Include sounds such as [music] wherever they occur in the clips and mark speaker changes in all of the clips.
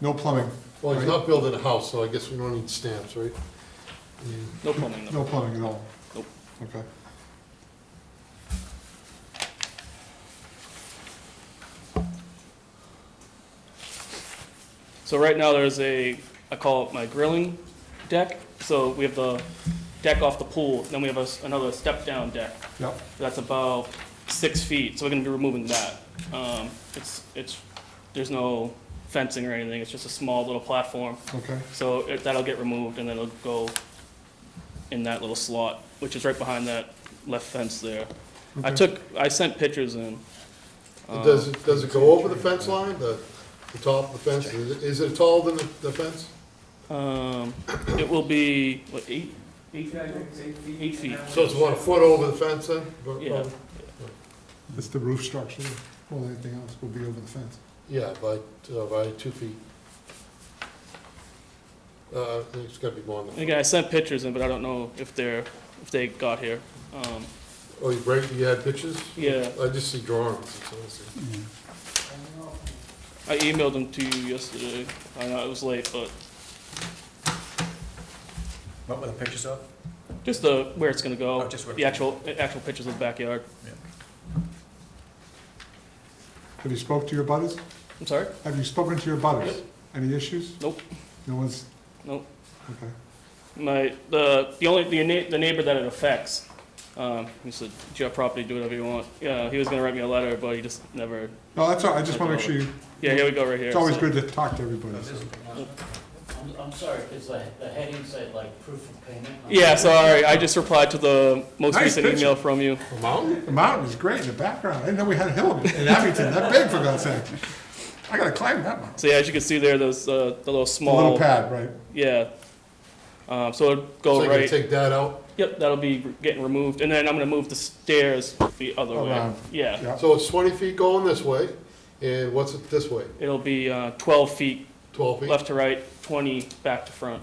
Speaker 1: No plumbing,
Speaker 2: Well, he's not building a house, so I guess we don't need stamps, right?
Speaker 3: No plumbing,
Speaker 1: no
Speaker 3: no.
Speaker 1: plumbing at all?
Speaker 3: Nope.
Speaker 1: Okay.
Speaker 3: So right now, there's a, I call it my grilling deck. So we have the deck off the pool, then we have a s another step-down deck.
Speaker 1: Yep,
Speaker 3: That's about six feet, so we're gonna be removing that. Um, it's, it's, there's no fencing or anything, it's just a small little platform.
Speaker 1: okay,
Speaker 3: So it- that'll get removed, and then it'll go in that little slot, which is right behind that left fence there. I
Speaker 1: Okay.
Speaker 3: took, I sent pictures in.
Speaker 2: And Does it, does it go
Speaker 3: Um,
Speaker 2: over the fence line, the, the top of the fence? Is it- Is it taller than the the fence?
Speaker 3: Um, it will be, what, eight? Eight feet. Eight feet.
Speaker 2: So it's about a foot over the fence then?
Speaker 3: Yeah.
Speaker 1: it's the roof structure, well, anything else will be over the fence.
Speaker 2: Yeah, by, uh, by two feet. Uh, I think it's gotta be more than,
Speaker 3: Again, I sent pictures in, but I don't know if they're, if they got here. Um,
Speaker 2: oh, you break, you had pictures?
Speaker 3: yeah,
Speaker 2: I just see drawings, that's all I see.
Speaker 3: Mm. I emailed them to you yesterday. I know it was late, but
Speaker 4: What were the pictures of?
Speaker 3: just the, where it's gonna go.
Speaker 4: Oh, just where-
Speaker 3: The actual, actual pictures of the backyard.
Speaker 1: Have you spoke to your butters?
Speaker 3: I'm sorry?
Speaker 1: Have you spoken to your butters? Any issues?
Speaker 3: Nope,
Speaker 1: No one's,
Speaker 3: nope.
Speaker 1: okay,
Speaker 3: My, the, the only, the na- the neighbor that it affects, um, he said, it's your property, do whatever you want. Yeah, he was gonna write me a letter, but he just never,
Speaker 1: no, that's all, right. I just wanna make sure you,
Speaker 3: yeah, here we go, right here.
Speaker 1: it's always
Speaker 3: So-
Speaker 1: good to talk to everybody, so.
Speaker 5: I'm, I'm sorry, because the, the heading said like proof of payment.
Speaker 3: Yeah, sorry, I just replied to the most
Speaker 1: Nice
Speaker 3: recent
Speaker 1: picture.
Speaker 3: email from you.
Speaker 2: A mountain?
Speaker 1: The mountain is great in the background, I didn't know we had a hill in Abington, that big for God's sake. I gotta climb that mountain.
Speaker 3: So yeah, as you can see there, those, uh, the little
Speaker 1: The little
Speaker 3: small,
Speaker 1: pad, right,
Speaker 3: yeah. Um, so it'll
Speaker 2: So
Speaker 3: go
Speaker 2: you're gonna
Speaker 3: right,
Speaker 2: take that out?
Speaker 3: yep, that'll be re- getting removed, and then I'm gonna move the stairs the other way.
Speaker 1: Around.
Speaker 3: Yeah,
Speaker 1: yeah,
Speaker 2: So it's twenty feet going this way, and what's it this way?
Speaker 3: it'll be, uh, twelve feet,
Speaker 2: Twelve feet?
Speaker 3: left to right, twenty back to front.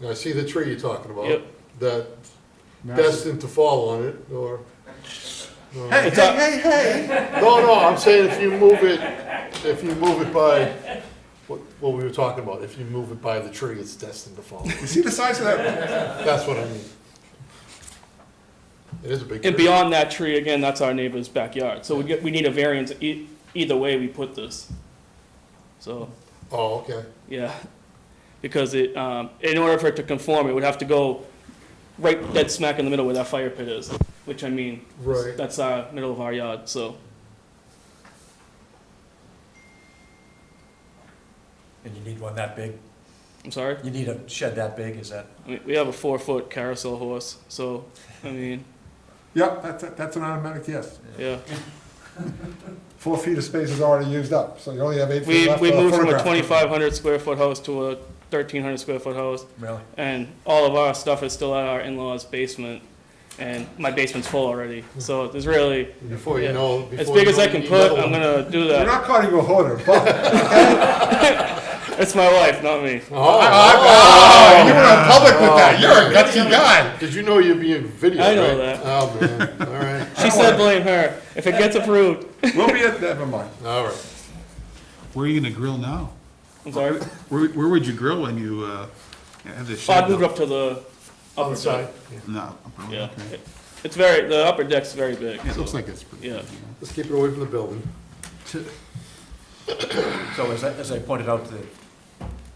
Speaker 2: And I see the tree you're talking about,
Speaker 3: Yep.
Speaker 2: that
Speaker 1: massive.
Speaker 2: destined to fall on it, or, no.
Speaker 1: Hey,
Speaker 3: It's up.
Speaker 1: hey, hey, hey,
Speaker 2: No, no, I'm saying if you move it, if you move it by, what, what we were talking about, if you move it by the tree, it's destined to fall.
Speaker 1: you see the size of that,
Speaker 2: That's what I mean. It is a big
Speaker 3: And
Speaker 2: tree.
Speaker 3: beyond that tree, again, that's our neighbor's backyard, so we get, we need a variance e- either way we put this. So,
Speaker 2: Oh, okay.
Speaker 3: yeah, because it, um, in order for it to conform, it would have to go right dead smack in the middle where that fire pit is, which I mean,
Speaker 2: Right.
Speaker 3: that's our middle of our yard, so,
Speaker 4: And you need one that big?
Speaker 3: I'm sorry?
Speaker 4: You need a shed that big, is that?
Speaker 3: I mean, we have a four-foot carousel horse, so, I
Speaker 4: [laughs]
Speaker 3: mean,
Speaker 1: yep, that's, that's an automatic yes.
Speaker 3: yeah.
Speaker 1: Four feet of space is already used up, so you only have eight feet
Speaker 3: We,
Speaker 1: left
Speaker 3: we
Speaker 1: for a
Speaker 3: moved from a
Speaker 1: photograph.
Speaker 3: twenty-five hundred square foot house to a thirteen hundred square foot house,
Speaker 4: Really?
Speaker 3: and all of our stuff is still at our in-laws' basement, and my basement's full already. So there's really,
Speaker 2: Before
Speaker 3: Yeah.
Speaker 2: you know.
Speaker 3: as
Speaker 2: before
Speaker 3: big
Speaker 2: you
Speaker 3: as
Speaker 2: know
Speaker 3: I
Speaker 2: it,
Speaker 3: can
Speaker 2: you
Speaker 3: put,
Speaker 2: know
Speaker 3: I'm gonna do
Speaker 1: We're
Speaker 3: that.
Speaker 1: not calling you a hoarder,
Speaker 3: [laughs]
Speaker 1: but
Speaker 3: It's my wife, not me.
Speaker 2: Oh.
Speaker 3: Oh.
Speaker 1: you went on public with that, you're a gutsy guy.
Speaker 2: [laughs] Did you know you're being videoed?
Speaker 3: I know
Speaker 2: right?
Speaker 3: that.
Speaker 2: Oh, man, all right,
Speaker 3: She said blame her. If it gets approved,
Speaker 1: We'll be at, never mind.
Speaker 2: all right.
Speaker 6: Where are you gonna grill now?
Speaker 3: I'm sorry.
Speaker 6: Where, where would you grill when you, uh, have this shed?
Speaker 3: I'd moved up to the upper
Speaker 2: Outside.
Speaker 3: deck.
Speaker 6: No.
Speaker 3: Yeah,
Speaker 6: okay.
Speaker 3: It- it's very, the upper deck's very big.
Speaker 6: Yeah, It looks
Speaker 3: so-
Speaker 6: like it's pretty.
Speaker 3: Yeah.
Speaker 6: big,
Speaker 2: Let's keep it away from the building.
Speaker 4: So as I, as I pointed out to the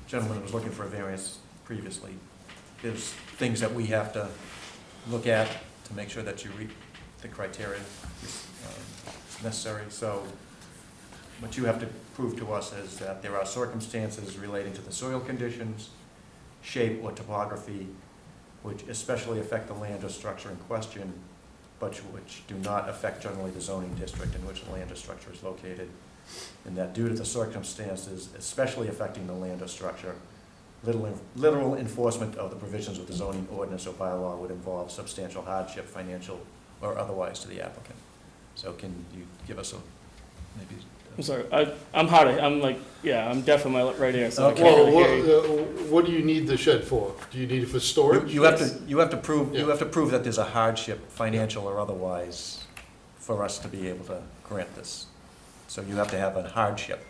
Speaker 4: gentleman who was looking for a variance previously, there's things that we have to look at to make sure that you read the criteria um, necessary. So what you have to prove to us is that there are circumstances relating to the soil conditions, shape or topography, which especially affect the land or structure in question, but which do not affect generally the zoning district in which the land or structure is located and that due to the circumstances especially affecting the land or structure, little- literal enforcement of the provisions of the zoning ordinance or bylaw would involve substantial hardship, financial or otherwise, to the applicant. So can you give us a, maybe?
Speaker 3: I'm sorry. I, I'm hard. of- I'm like, yeah, I'm deaf in my right ear, so I
Speaker 4: Okay.
Speaker 3: can't
Speaker 2: Well,
Speaker 3: really
Speaker 2: what,
Speaker 3: hear you.
Speaker 2: uh, what do you need the shed for? Do you need it for
Speaker 4: You-
Speaker 2: storage?
Speaker 4: You have to, you have to prove, you
Speaker 2: Yeah.
Speaker 4: have to prove that there's a hardship, financial or otherwise, for us to be able to grant this. So you have to have a hardship.